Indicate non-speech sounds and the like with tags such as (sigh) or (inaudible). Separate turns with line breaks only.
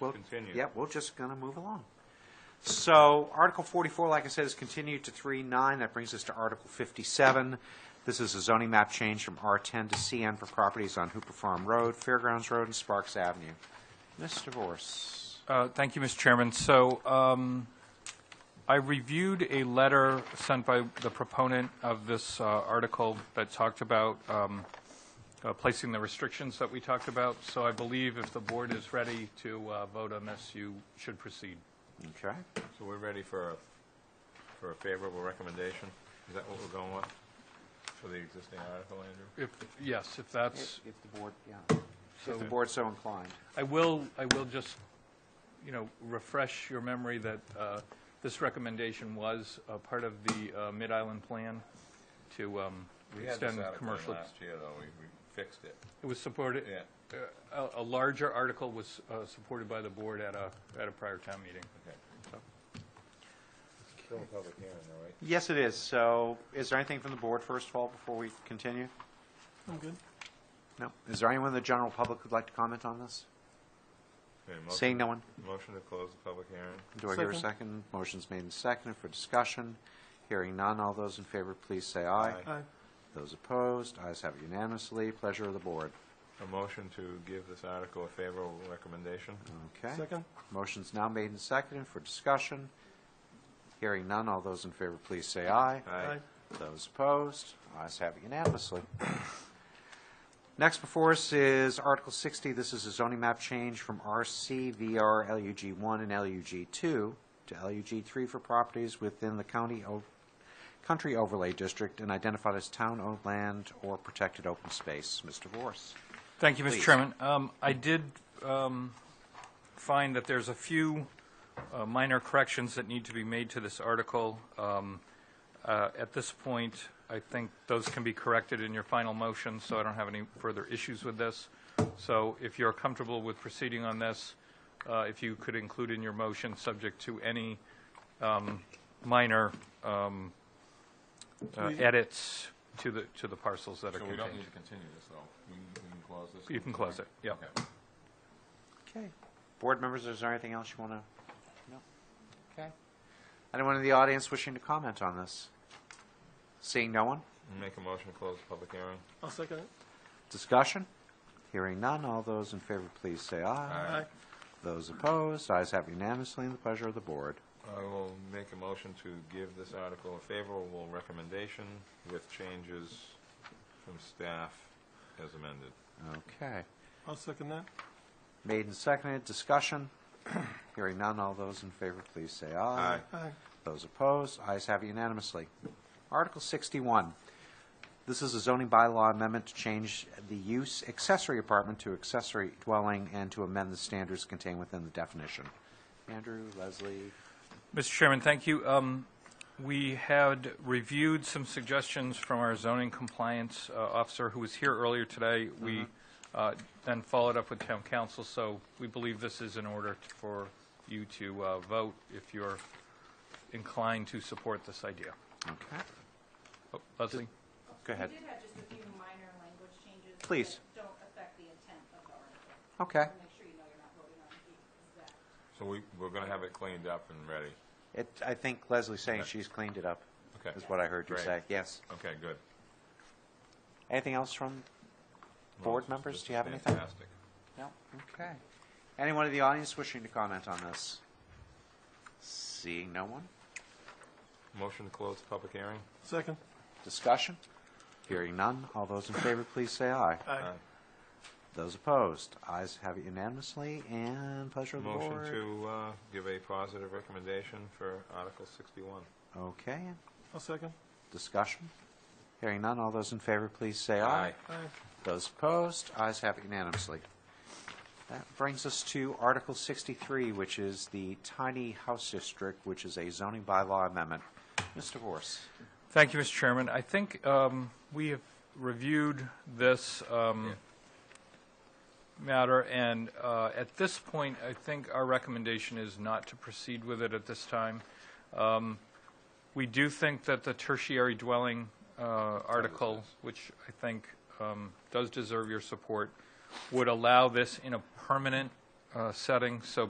Well,
continue.
Yeah, we're just going to move along. So Article 44, like I said, is continued to 3-9. That brings us to Article 57. This is a zoning map change from R10 to CN for properties on Hooper Farm Road, Fairgrounds Road, and Sparks Avenue. Ms. DeVore.
Uh, Thank you, Mr. Chairman. So um, I reviewed a letter sent by the proponent of this uh, article that talked about um, uh, placing the restrictions that we talked about. So I believe if the board is ready to uh, vote on this, you should proceed.
Okay.
So we're ready for, a- for a favorable recommendation? Is that what we're going with, for the existing article, Andrew?
If, yes, if that's,
If the board, yeah. If the board's so inclined.
I will, I will just, you know, refresh your memory that uh, this recommendation was a part of the uh, Mid-Island plan to um,
We had this
extend
article in
commercial.
last year, though, we, we fixed it,
It was supported,
yeah.
a, a larger article was uh, supported by the board at a, at a prior town meeting.
Okay. Still a public hearing, all right?
Yes, it is. So is there anything from the board, first of all, before we continue? I'm good. No? Is there anyone in the general public who'd like to comment on this?
Okay, motion-
Seeing no one?
Motion to close the public hearing?
Do I hear a second? Motion's made and seconded for discussion. Hearing none, all those in favor, please say aye.
Aye. Aye.
Those opposed, ayes have it unanimously. Pleasure of the board.
A motion to give this article a favorable recommendation?
Okay? Second. Motion's now made and seconded for discussion. Hearing none, all those in favor, please say aye.
Aye.
Those opposed, ayes have it unanimously. Next before us is Article 60. This is a zoning map change from RC, VR, LUG 1, and LUG 2 to LUG 3 for properties within the county, o- country overlay district and identified as town-owned land or protected open space. Mr. Vorse.
Thank you,
Please.
Mr. Chairman. Um, I did um, find that there's a few uh, minor corrections that need to be made to this article. Um, uh, At this point, I think those can be corrected in your final motion, so I don't have any further issues with this. So if you're comfortable with proceeding on this, uh, if you could include in your motion, subject to any um, minor um, uh, edits to the, to the parcels that are
So we
contained.
don't need to continue this, though? We can, we can close this?
You can close it, yeah.
Okay.
Okay. Board members, is there anything else you want to? No? Okay. Anyone in the audience wishing to comment on this? Seeing no one?
Make a motion to close the public hearing?
I'll second it.
Discussion? Hearing none, all those in favor, please say aye.
Aye.
Those opposed, ayes have unanimously, and the pleasure of the board.
I will make a motion to give this article a favorable recommendation with changes from staff as amended.
Okay.
I'll second that.
Made and seconded, discussion? (clears throat) Hearing none, all those in favor, please say aye.
Aye.
Aye.
Those opposed, ayes have unanimously. Article 61. This is a zoning bylaw amendment to change the use accessory apartment to accessory dwelling and to amend the standards contained within the definition. Andrew, Leslie,
Mr. Chairman, thank you. Um, We had reviewed some suggestions from our zoning compliance uh, officer who was here earlier today. We uh, then followed up with town council, so we believe this is in order t- for you to uh, vote if you're inclined to support this idea.
okay?
Oh, Leslie?
Go ahead.
We did have just a few minor language changes.
Please.
That don't affect the intent of the article.
Okay.
So Make sure you know you're not voting on the exact.
So we, we're gonna have it cleaned up and ready.
It, I think Leslie's saying she's cleaned it up,
Okay.
is what I heard you
Great.
say, yes.
Okay, good.
Anything else from board
Well,
members?
this
Do you have
is
anything?
Fantastic.
No, okay. Anyone in the audience wishing to comment on this? Seeing no one?
Motion to close the public hearing?
Second.
Discussion? Hearing none, all those in favor, please say aye.
Aye.
Those opposed, ayes have it unanimously, and pleasure of the board.
Motion to, uh, give a positive recommendation for Article sixty-one.
Okay,
I'll second.
discussion? Hearing none, all those in favor, please say aye.
Aye.
Those opposed, ayes have it unanimously. That brings us to Article 63, which is the tiny house district, which is a zoning bylaw amendment. Mr. Vorse.
Thank you, Mr. Chairman. I think um, we have reviewed this um, matter, and uh, at this point, I think our recommendation is not to proceed with it at this time. Um, We do think that the tertiary dwelling uh, article, which I think um, does deserve your support, would allow this in a permanent uh, setting, so